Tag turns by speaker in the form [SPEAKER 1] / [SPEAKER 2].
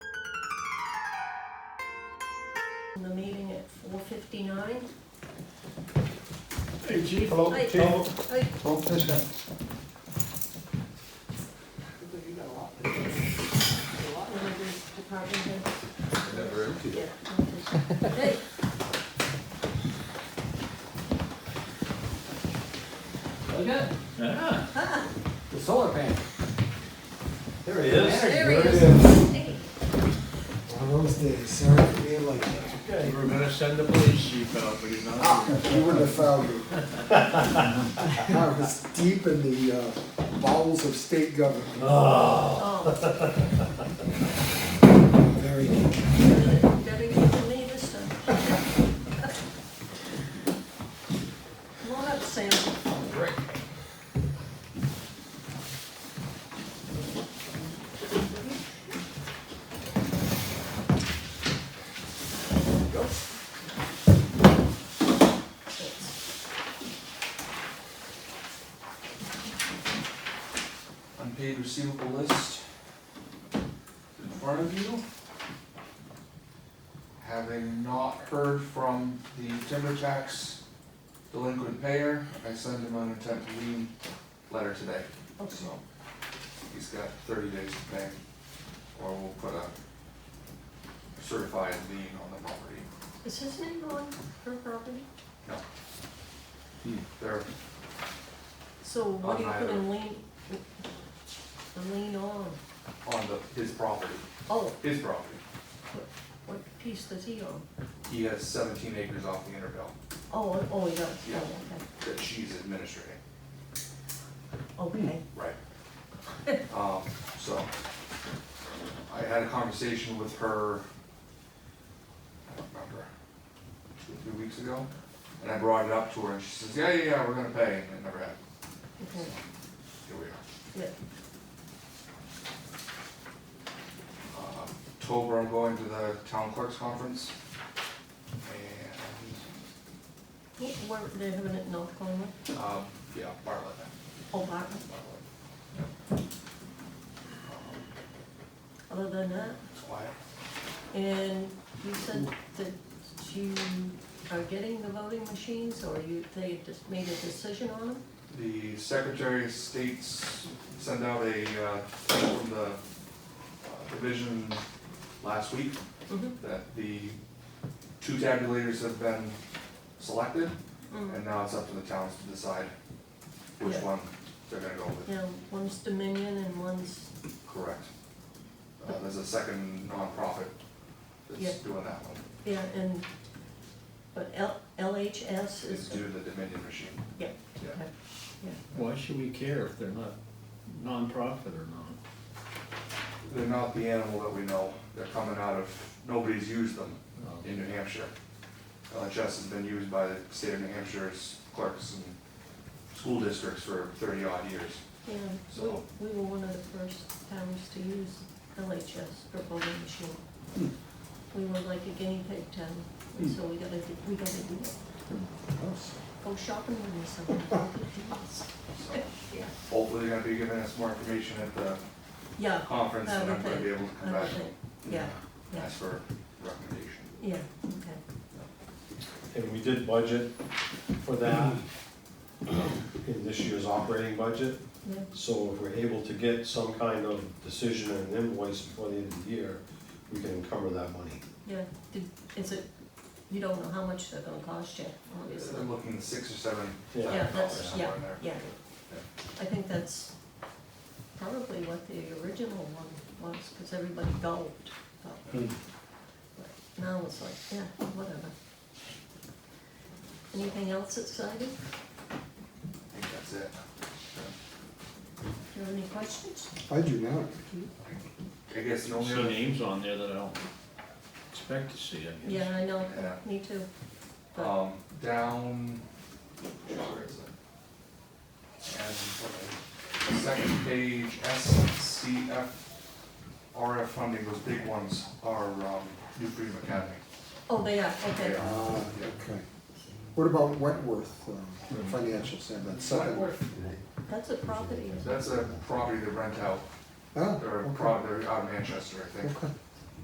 [SPEAKER 1] open the meeting at four fifty-nine.
[SPEAKER 2] Hey, chief.
[SPEAKER 3] Hello,
[SPEAKER 1] Hi.
[SPEAKER 3] Chief.
[SPEAKER 2] oh,
[SPEAKER 1] I,
[SPEAKER 3] Hello, this guy.
[SPEAKER 4] You got a lot. A lot.
[SPEAKER 1] one of these department heads,
[SPEAKER 5] Never empty.
[SPEAKER 1] yeah. Hey,
[SPEAKER 4] Look at
[SPEAKER 2] Ah,
[SPEAKER 1] ah,
[SPEAKER 4] the solar panel.
[SPEAKER 5] There he is.
[SPEAKER 1] there he
[SPEAKER 3] There
[SPEAKER 1] is.
[SPEAKER 3] he
[SPEAKER 1] Hey,
[SPEAKER 3] One of those days, sorry for being like that.
[SPEAKER 2] we were gonna send the police chief out, but he's not. here.
[SPEAKER 3] You wouldn't have found me. I was deep in the uh, bowels of state government.
[SPEAKER 1] Oh,
[SPEAKER 5] Oh.
[SPEAKER 3] Very deep.
[SPEAKER 1] gotta get to me this time. Come on up, Sam.
[SPEAKER 6] unpaid receivable list in front of you. Having not heard from the timber tax delinquent payer, I sent him an intent to lien letter today,
[SPEAKER 1] Okay.
[SPEAKER 6] so he's got thirty days to pay, or we'll put a certified lien on the property.
[SPEAKER 1] Is his name on her property?
[SPEAKER 4] Hmm.
[SPEAKER 6] They're
[SPEAKER 1] So what do you
[SPEAKER 6] On
[SPEAKER 1] put
[SPEAKER 6] either.
[SPEAKER 1] a lean, a lean on?
[SPEAKER 6] on the, his property,
[SPEAKER 1] Oh,
[SPEAKER 6] his property.
[SPEAKER 1] what piece does he own?
[SPEAKER 6] He has seventeen acres off the Intervale
[SPEAKER 1] Oh, oh, he does,
[SPEAKER 6] Yeah.
[SPEAKER 1] oh,
[SPEAKER 6] that she's administrating.
[SPEAKER 1] okay, okay.
[SPEAKER 6] Right. Um, so, I had a conversation with her, I don't remember, two, or three weeks ago, and I brought it up to her, and she says, yeah, yeah, yeah, we're gonna pay, and it never happened,
[SPEAKER 1] Okay,
[SPEAKER 6] here we are.
[SPEAKER 1] yeah,
[SPEAKER 6] Uh, October, I'm going to the town clerks conference, and,
[SPEAKER 1] Yeah, where, they're having it in North Conway,
[SPEAKER 6] um, yeah, Bartlett,
[SPEAKER 1] oh, Barton,
[SPEAKER 6] Bartlett. Um,
[SPEAKER 1] other than that.
[SPEAKER 6] It's quiet.
[SPEAKER 1] And you said that you are getting the voting machines, or you, they just made a decision on them?
[SPEAKER 6] The Secretary of State's sent out a, uh, thing from the uh, division last week
[SPEAKER 1] Mhm.
[SPEAKER 6] that the two tabulators have been selected,
[SPEAKER 1] Mm.
[SPEAKER 6] and now it's up to the towns to decide which
[SPEAKER 1] Yeah.
[SPEAKER 6] one they're gonna go with.
[SPEAKER 1] Yeah, one's Dominion and one's,
[SPEAKER 6] Correct. Uh, there's a second nonprofit
[SPEAKER 1] Yeah.
[SPEAKER 6] that's doing that one.
[SPEAKER 1] yeah, and, but L, LHS
[SPEAKER 6] It's
[SPEAKER 1] is,
[SPEAKER 6] due to the Dominion machine.
[SPEAKER 1] yeah,
[SPEAKER 6] Yeah.
[SPEAKER 1] okay, yeah,
[SPEAKER 2] Why should we care if they're not nonprofit or not?
[SPEAKER 6] They're not the animal that we know. They're coming out of, nobody's used them.
[SPEAKER 2] No.
[SPEAKER 6] in New Hampshire. LHS has been used by the state of New Hampshire's clerks and school districts for thirty odd years.
[SPEAKER 1] yeah.
[SPEAKER 6] So-
[SPEAKER 1] We, we were one of the first towns to use LHS for voting machine. We were like a guinea pig town, and so we gotta, do- we gotta do it.
[SPEAKER 3] Oh,
[SPEAKER 1] Go shopping with me sometime, we could do this.
[SPEAKER 6] So hopefully they're gonna be giving us more information at the
[SPEAKER 1] Yeah,
[SPEAKER 6] conference
[SPEAKER 1] I
[SPEAKER 6] and
[SPEAKER 1] would
[SPEAKER 6] I'm gonna be able to come
[SPEAKER 1] I would
[SPEAKER 6] back.
[SPEAKER 1] think, yeah,
[SPEAKER 6] and
[SPEAKER 1] yeah.
[SPEAKER 6] Ask for recommendation.
[SPEAKER 1] yeah, okay.
[SPEAKER 5] And we did budget for that in this year's operating budget.
[SPEAKER 1] Yeah.
[SPEAKER 5] So if we're able to get some kind of decision and invoice before the end of the year, we can encumber that money.
[SPEAKER 1] Yeah, did, is it, you don't know how much they're gonna cost you, obviously.
[SPEAKER 6] They're looking six or seven
[SPEAKER 5] Yeah.
[SPEAKER 1] Yeah,
[SPEAKER 6] thousand dollars
[SPEAKER 1] that's-
[SPEAKER 6] somewhere in there.
[SPEAKER 1] yeah, I think that's probably what the original one was, because everybody gulped. but-
[SPEAKER 6] Hmm.
[SPEAKER 1] but Now it's like, yeah, whatever. Anything else exciting?
[SPEAKER 6] I think that's it.
[SPEAKER 1] Do you have any questions?
[SPEAKER 3] I do now.
[SPEAKER 6] I guess the
[SPEAKER 2] Don't
[SPEAKER 6] only
[SPEAKER 2] see
[SPEAKER 6] other,
[SPEAKER 2] names on there that I don't expect to see, I guess.
[SPEAKER 1] Yeah, I know,
[SPEAKER 6] Yeah.
[SPEAKER 1] me too. But,
[SPEAKER 6] um, down, where is it? And what- second page, SCF, RF funding, those big ones are, um, New Freedom Academy.
[SPEAKER 1] oh, they are,
[SPEAKER 6] They
[SPEAKER 1] okay.
[SPEAKER 6] are.
[SPEAKER 3] Ah, okay. What about Wentworth, um,
[SPEAKER 5] Hmm.
[SPEAKER 3] financial center, that second?
[SPEAKER 1] That's a property.
[SPEAKER 6] That's a property they rent out,
[SPEAKER 3] Ah,
[SPEAKER 6] or a
[SPEAKER 3] okay.
[SPEAKER 6] pro, they're out of Manchester, I think.
[SPEAKER 3] Okay.